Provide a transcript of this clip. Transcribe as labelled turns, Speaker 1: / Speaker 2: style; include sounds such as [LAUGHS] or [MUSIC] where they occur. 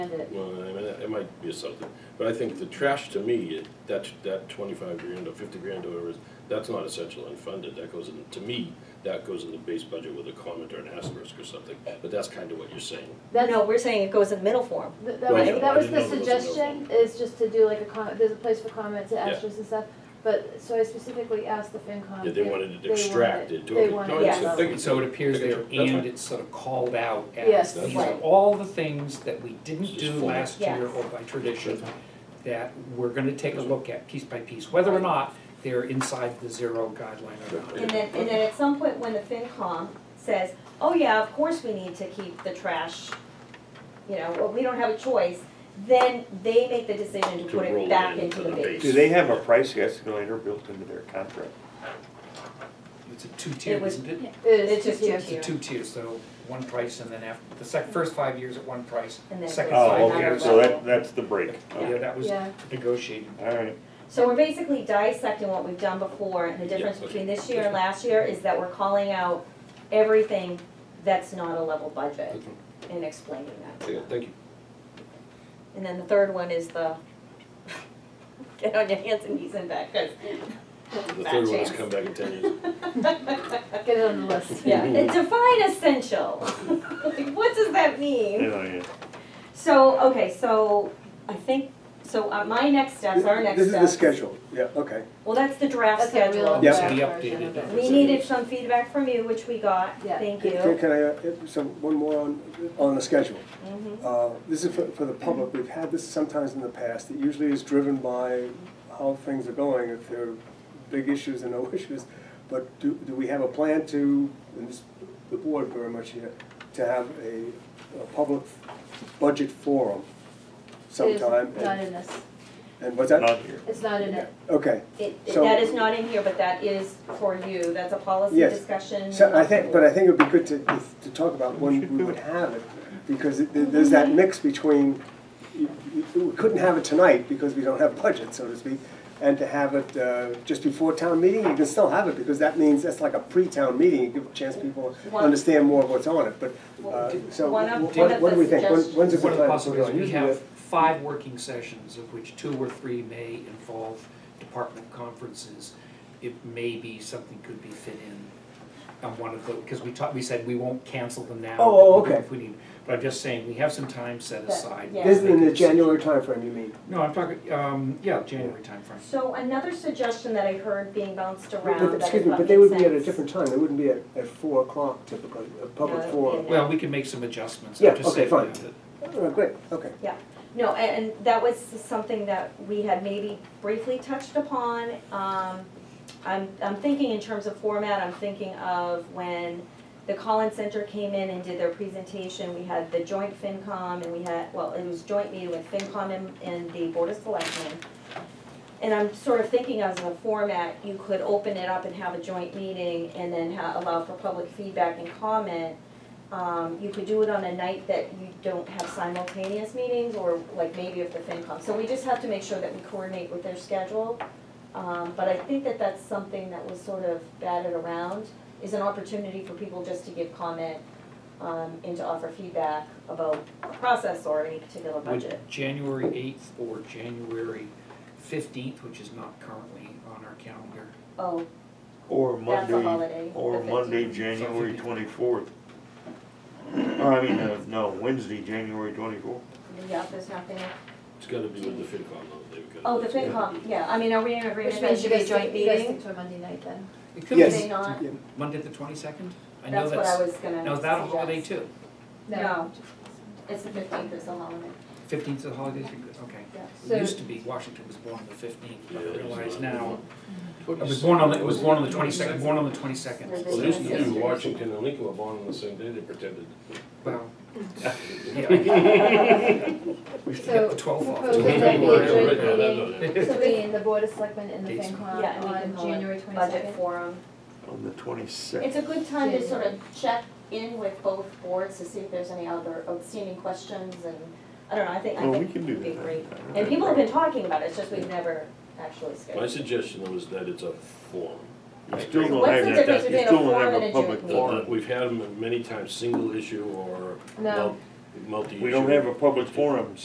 Speaker 1: it.
Speaker 2: Well, I mean, it might be something, but I think the trash to me, it- that, that twenty-five grand or fifty grand or whatever, is- that's not essential unfunded, that goes in, to me, that goes in the base budget with a comment or an asterisk or something, but that's kind of what you're saying.
Speaker 1: That's,
Speaker 3: No, we're saying it goes in middle form.
Speaker 1: th- that
Speaker 2: Well,
Speaker 1: was,
Speaker 2: yeah,
Speaker 1: that
Speaker 2: I
Speaker 1: was
Speaker 2: didn't
Speaker 1: the
Speaker 2: know there was a middle
Speaker 1: suggestion, is just to do like a comment, there's a place for comments, and
Speaker 2: Yeah.
Speaker 1: asterisks and stuff. But, so I specifically asked the FinCom.
Speaker 2: Yeah, they
Speaker 1: if
Speaker 2: wanted it
Speaker 1: they wanted-
Speaker 2: extracted,
Speaker 1: they
Speaker 2: totally.
Speaker 1: wanted
Speaker 2: No,
Speaker 1: it
Speaker 3: it's a
Speaker 1: done.
Speaker 2: thing.
Speaker 4: So it appears there,
Speaker 2: That's fine.
Speaker 4: and it's sort of called out
Speaker 1: Yes,
Speaker 4: as, these are
Speaker 1: right.
Speaker 4: all the things that we didn't
Speaker 2: Just
Speaker 4: do
Speaker 2: format.
Speaker 4: last year
Speaker 3: Yes.
Speaker 4: or by tradition, that we're gonna take a look at piece by piece, whether or not they're inside the zero guideline or
Speaker 2: Sure.
Speaker 4: not.
Speaker 3: And then, and then at some point when the FinCom says, oh yeah, of course we need to keep the trash, you know, or we don't have a choice, then they make the decision
Speaker 2: To
Speaker 3: to put
Speaker 2: roll
Speaker 3: it
Speaker 2: it
Speaker 3: back
Speaker 2: into
Speaker 3: into the
Speaker 2: the
Speaker 3: base.
Speaker 2: base.
Speaker 5: Do they have a price escalator built into their contract?
Speaker 4: It's a two-tier,
Speaker 3: It was-
Speaker 4: isn't it?
Speaker 1: It is
Speaker 3: It's just
Speaker 1: two
Speaker 3: two
Speaker 1: tiers.
Speaker 4: It's a
Speaker 3: tier.
Speaker 4: two-tier, so one price and then after, the sec, first five years at one price,
Speaker 3: And then it
Speaker 4: second
Speaker 3: goes
Speaker 4: five
Speaker 5: Oh,
Speaker 3: to
Speaker 5: okay,
Speaker 4: years.
Speaker 5: so that, that's the break.
Speaker 4: Yeah, that was
Speaker 1: Yeah.
Speaker 4: negotiated.
Speaker 5: All right,
Speaker 3: So we're basically dissecting what we've done before, and the difference
Speaker 2: okay.
Speaker 3: between this year and last year is that we're calling out everything that's not a level budget and explaining that.
Speaker 2: Yeah, Thank you.
Speaker 3: And then the third one is the, [LAUGHS] get on your hands and knees and back, 'cause
Speaker 2: The
Speaker 3: [LAUGHS] Bad
Speaker 2: third one is
Speaker 3: chance.
Speaker 2: come back in ten years.
Speaker 3: [LAUGHS]
Speaker 1: Get it on the list.
Speaker 3: Yeah, and define essential. [LAUGHS] Like, what does that mean?
Speaker 5: yeah, yeah.
Speaker 3: So, okay, so I think, so uh, my next steps, our next
Speaker 6: This
Speaker 3: steps.
Speaker 6: is the schedule, yeah, okay.
Speaker 3: Well, that's the
Speaker 1: That's
Speaker 3: draft
Speaker 1: a real.
Speaker 3: schedule.
Speaker 4: Yeah.
Speaker 1: draft
Speaker 4: To be
Speaker 1: version of
Speaker 4: updated.
Speaker 1: it.
Speaker 3: We needed some feedback from you, which we got,
Speaker 1: Yeah.
Speaker 3: thank you.
Speaker 6: Can can I, uh, so one more on, on the schedule.
Speaker 3: Mhm.
Speaker 6: Uh, This is for, for the public, we've had this sometimes in the past, it usually is driven by how things are going, if there are big issues and no [LAUGHS] issues. But do, do we have a plan to, and this, the board very much here, to have a, a public budget forum sometime?
Speaker 1: It
Speaker 6: and-
Speaker 1: is not in this,
Speaker 6: And what's that?
Speaker 5: Not here.
Speaker 1: it's not in it.
Speaker 6: Okay,
Speaker 3: It- it-
Speaker 6: So-
Speaker 3: That is not in here, but that is for you, that's a policy
Speaker 6: Yes.
Speaker 3: discussion.
Speaker 6: So I think, but I think it'd be good to, is to talk about when we would have it, because it- there- there's that mix between, you- you- we couldn't have it tonight because we don't have budget, so to speak, and to have it uh, just before town meeting, you can still have it, because that means that's like a pre-town meeting, you give a chance people to
Speaker 3: One-
Speaker 6: understand more of what's on it, but, uh, so
Speaker 3: One of-
Speaker 6: what
Speaker 3: one of
Speaker 6: what do we
Speaker 3: the
Speaker 6: think? When- When's a
Speaker 4: One
Speaker 6: good
Speaker 4: of the
Speaker 6: time?
Speaker 4: possibilities, we
Speaker 6: Usually
Speaker 4: have five working sessions, of which two or three may involve department conferences. It may be something could be fit in on one of the, because we talked, we said we won't cancel them now.
Speaker 6: Oh, oh,
Speaker 4: but we do
Speaker 6: okay.
Speaker 4: If we need, but I'm just saying, we have some time set
Speaker 3: But,
Speaker 4: aside.
Speaker 3: yeah.
Speaker 6: This is in the January timeframe, you mean?
Speaker 4: No, I'm talking, um, yeah, January timeframe.
Speaker 3: So another suggestion that I heard being bounced
Speaker 6: But-
Speaker 3: around
Speaker 6: but-
Speaker 3: that I
Speaker 6: Excuse me,
Speaker 3: thought
Speaker 6: but they
Speaker 3: made
Speaker 6: would be at a
Speaker 3: sense.
Speaker 6: different time, they wouldn't be at, at four o'clock typically, a public
Speaker 3: No, it would be
Speaker 6: forum.
Speaker 3: at
Speaker 4: Well, we can make some adjustments. I'm
Speaker 6: Yeah,
Speaker 4: just
Speaker 6: okay,
Speaker 4: saying
Speaker 6: fine.
Speaker 4: that-
Speaker 6: Oh, Great, okay.
Speaker 3: No, a- and that was something that we had maybe briefly touched upon. Um, I'm, I'm thinking in terms of format, I'm thinking of when the Collins Center came in and did their presentation, we had the joint FinCom and we had, well, it was joint meeting with FinCom and, and the Board of Selectmen. And I'm sort of thinking as a format, you could open it up and have a joint meeting and then ha- allow for public feedback and comment. Um, you could do it on a night that you don't have simultaneous meetings, or like maybe if the FinCom, so we just have to make sure that we coordinate with their schedule. Um, but I think that that's something that was sort of batted around, is an opportunity for people just to give comment, um, and to offer feedback about process or any particular budget.
Speaker 4: Would January eighth or January fifteenth, which is not currently on our calendar,
Speaker 3: Oh,
Speaker 5: Or
Speaker 3: that's a holiday. the
Speaker 5: Or
Speaker 3: 15th.
Speaker 5: Monday, January twenty-fourth. I mean, uh, no, Wednesday, January twenty-fourth.
Speaker 3: Yeah, there's nothing,
Speaker 2: It's gotta be with the FinCom though, they've got.
Speaker 3: oh, the FinCom, yeah, I mean, are we in
Speaker 1: Which
Speaker 3: agreement that
Speaker 1: means
Speaker 3: should
Speaker 1: you
Speaker 3: be
Speaker 1: guys
Speaker 3: a joint
Speaker 1: think, you guys
Speaker 3: meeting?
Speaker 1: think for Monday night then?
Speaker 4: It could
Speaker 6: Yes.
Speaker 3: they not?
Speaker 6: yeah.
Speaker 4: Monday the twenty-second? I know
Speaker 3: That's what
Speaker 4: that's,
Speaker 3: I was gonna
Speaker 4: now is that a holiday
Speaker 3: suggest.
Speaker 4: too?
Speaker 3: No, it's the fifteenth is a holiday.
Speaker 4: Fifteenth is a holiday, too? okay.
Speaker 1: So-
Speaker 4: It used to be Washington was born on the fifteenth, but
Speaker 2: Yeah,
Speaker 4: I
Speaker 2: it's
Speaker 4: realize
Speaker 2: not.
Speaker 4: now,
Speaker 2: It
Speaker 4: it was born on, the- it was born on the twenty-second, born on the
Speaker 2: Well,
Speaker 4: twenty-second.
Speaker 2: they used to do Washington and Lincoln were born on the same day, they pretended.
Speaker 4: Well, yeah, I
Speaker 3: [LAUGHS]
Speaker 1: So,
Speaker 4: get the twelfth off.
Speaker 1: propose
Speaker 2: [LAUGHS] Yeah,
Speaker 1: that we
Speaker 2: right
Speaker 1: adjourn the
Speaker 2: now, that-
Speaker 1: meeting
Speaker 2: that-
Speaker 1: [LAUGHS] between the Board of Selectmen and the
Speaker 4: Dates.
Speaker 3: Yeah,
Speaker 1: FinCom
Speaker 3: and we can
Speaker 1: on
Speaker 3: call it
Speaker 1: January
Speaker 3: Budget
Speaker 1: twenty-second.
Speaker 3: forum.
Speaker 5: On the twenty-sixth.
Speaker 3: It's a good time to sort of check in with both boards to see if there's any other outstanding questions and, I don't know, I think, I
Speaker 5: Well, we
Speaker 3: think
Speaker 5: can do
Speaker 3: it'd be
Speaker 5: that.
Speaker 3: great.
Speaker 5: I don't
Speaker 3: And
Speaker 5: have a
Speaker 3: people have been talking about it, it's just we've never actually
Speaker 2: My
Speaker 3: scheduled.
Speaker 2: suggestion was that it's a form.
Speaker 5: You still don't
Speaker 3: What's
Speaker 5: have
Speaker 3: the
Speaker 5: that-
Speaker 3: difference
Speaker 5: you
Speaker 3: between a
Speaker 5: still don't
Speaker 3: forum
Speaker 5: have
Speaker 3: and a
Speaker 5: public
Speaker 3: joint meeting?
Speaker 2: Well,
Speaker 5: forum.
Speaker 2: We've had them many times, single issue or
Speaker 1: No,
Speaker 2: mul- multi-issue.
Speaker 5: We don't have a public forum,